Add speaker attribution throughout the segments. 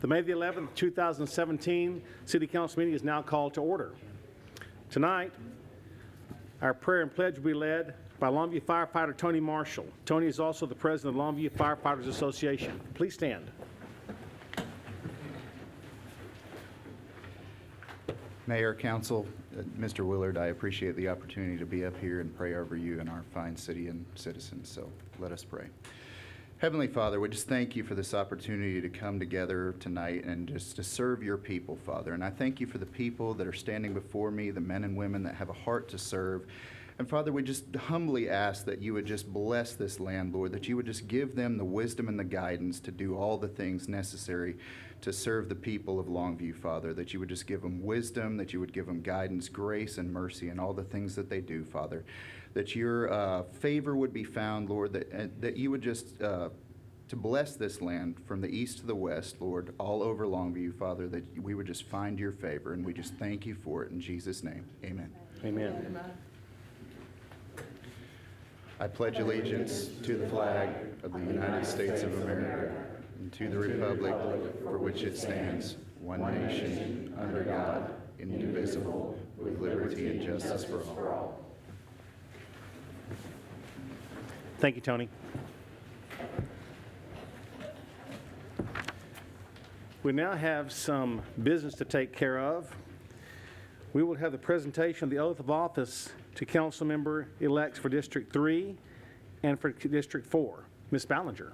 Speaker 1: The May the 11th, 2017 City Council meeting is now called to order. Tonight, our prayer and pledge will be led by Longview firefighter Tony Marshall. Tony is also the president of Longview Firefighters Association. Please stand.
Speaker 2: Mayor, council, uh, Mr. Willard, I appreciate the opportunity to be up here and pray over you and our fine city and citizens, so let us pray. Heavenly Father, we just thank you for this opportunity to come together tonight and just to serve your people, Father. And I thank you for the people that are standing before me, the men and women that have a heart to serve. And Father, we just humbly ask that you would just bless this land, Lord, that you would just give them the wisdom and the guidance to do all the things necessary to serve the people of Longview, Father, that you would just give them wisdom, that you would give them guidance, grace, and mercy in all the things that they do, Father, that your uh, favor would be found, Lord, that, and that you would just uh, to bless this land from the east to the west, Lord, all over Longview, Father, that we would just find your favor, and we just thank you for it in Jesus' name. Amen.
Speaker 1: Amen.
Speaker 2: I pledge allegiance to the flag of the United States of America and to the republic for which it stands, one nation, under God, indivisible, with liberty and justice for all.
Speaker 1: Thank you, Tony. We now have some business to take care of. We will have the presentation of the oath of office to council member elects for District 3 and for District 4. Ms. Ballinger.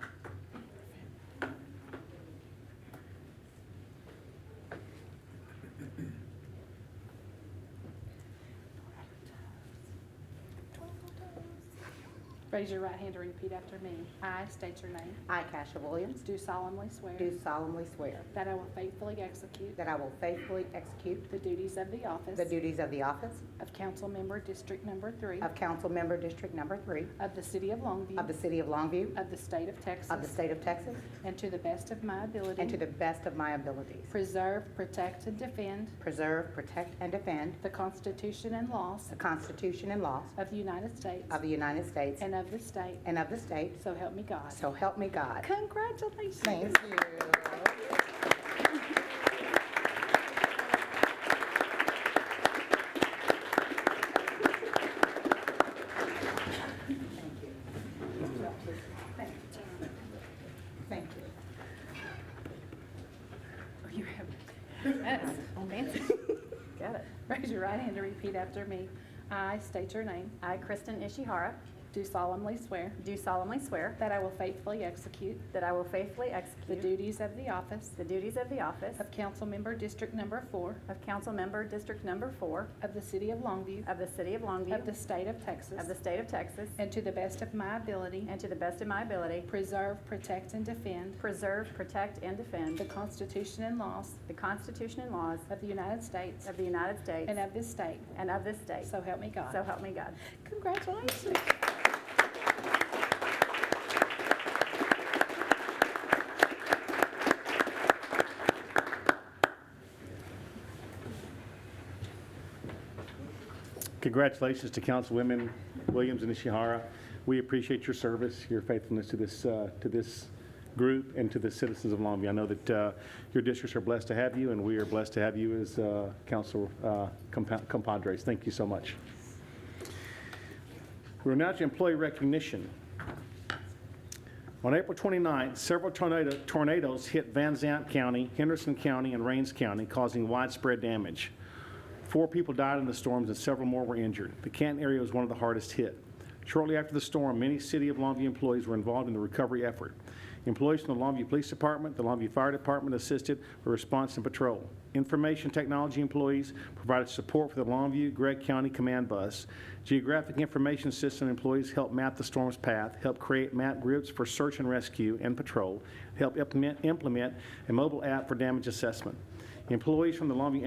Speaker 3: Raise your right hand and repeat after me. I state your name.
Speaker 4: I, Kasia Williams,
Speaker 3: Do solemnly swear
Speaker 4: do solemnly swear
Speaker 3: that I will faithfully execute
Speaker 4: that I will faithfully execute
Speaker 3: the duties of the office
Speaker 4: the duties of the office
Speaker 3: of council member, District Number Three
Speaker 4: of Council Member District Number Three
Speaker 3: of the city of Longview,
Speaker 4: of the City of Longview,
Speaker 3: of the state of Texas,
Speaker 4: of the State of Texas,
Speaker 3: and to the best of my ability,
Speaker 4: and to the best of my abilities.
Speaker 3: preserve, protect, and defend
Speaker 4: Preserve, protect, and defend
Speaker 3: the Constitution and laws
Speaker 4: the Constitution and laws
Speaker 3: of the United States
Speaker 4: of the United States
Speaker 3: and of this state.
Speaker 4: and of the state,
Speaker 3: So help me God.
Speaker 4: so help me God.
Speaker 3: Congratulations.
Speaker 4: Thank you. Thank you.
Speaker 3: Oh, You have, that's
Speaker 5: Oh,
Speaker 3: fancy. Got it. Raise your right hand and repeat after me. I state your name.
Speaker 5: I, Kristen Ishihara,
Speaker 3: Do solemnly swear
Speaker 5: do solemnly swear
Speaker 3: that I will faithfully execute
Speaker 5: that I will faithfully
Speaker 3: the
Speaker 5: execute
Speaker 3: duties of the office
Speaker 5: the duties of the office
Speaker 3: of council member District Number Four
Speaker 5: of council member, District Number Four
Speaker 3: of the city of Longview,
Speaker 5: of the city of
Speaker 3: of the
Speaker 5: Longview,
Speaker 3: state of Texas,
Speaker 5: of the state of Texas,
Speaker 3: and to the best of my ability,
Speaker 5: and to the best of my ability,
Speaker 3: preserve, protect, and defend
Speaker 5: preserve, protect, and
Speaker 3: the
Speaker 5: defend
Speaker 3: Constitution and laws
Speaker 5: the Constitution and laws
Speaker 3: of the United States
Speaker 5: of the United States
Speaker 3: and of this state.
Speaker 5: and of this state.
Speaker 3: So help me God.
Speaker 5: So help me God.
Speaker 3: Congratulations.
Speaker 1: Congratulations to Councilwomen Williams and Ishihara. We appreciate your service, your faithfulness to this, uh, to this group and to the citizens of Longview. I know that uh, your districts are blessed to have you, and we are blessed to have you as uh, council uh, compa- compadres. Thank you so much. We're now to employee recognition. On April 29th, several tornado- tornadoes hit Van Zant County, Henderson County, and Rains County, causing widespread damage. Four people died in the storms and several more were injured. The Canton area was one of the hardest hit. Shortly after the storm, many City of Longview employees were involved in the recovery effort. Employees from the Longview Police Department, the Longview Fire Department assisted with response and patrol. Information technology employees provided support for the Longview Gregg County Command Bus. Geographic Information System employees helped map the storm's path, helped create map groups for search and rescue and patrol, helped implement- implement a mobile app for damage assessment. Employees from the Longview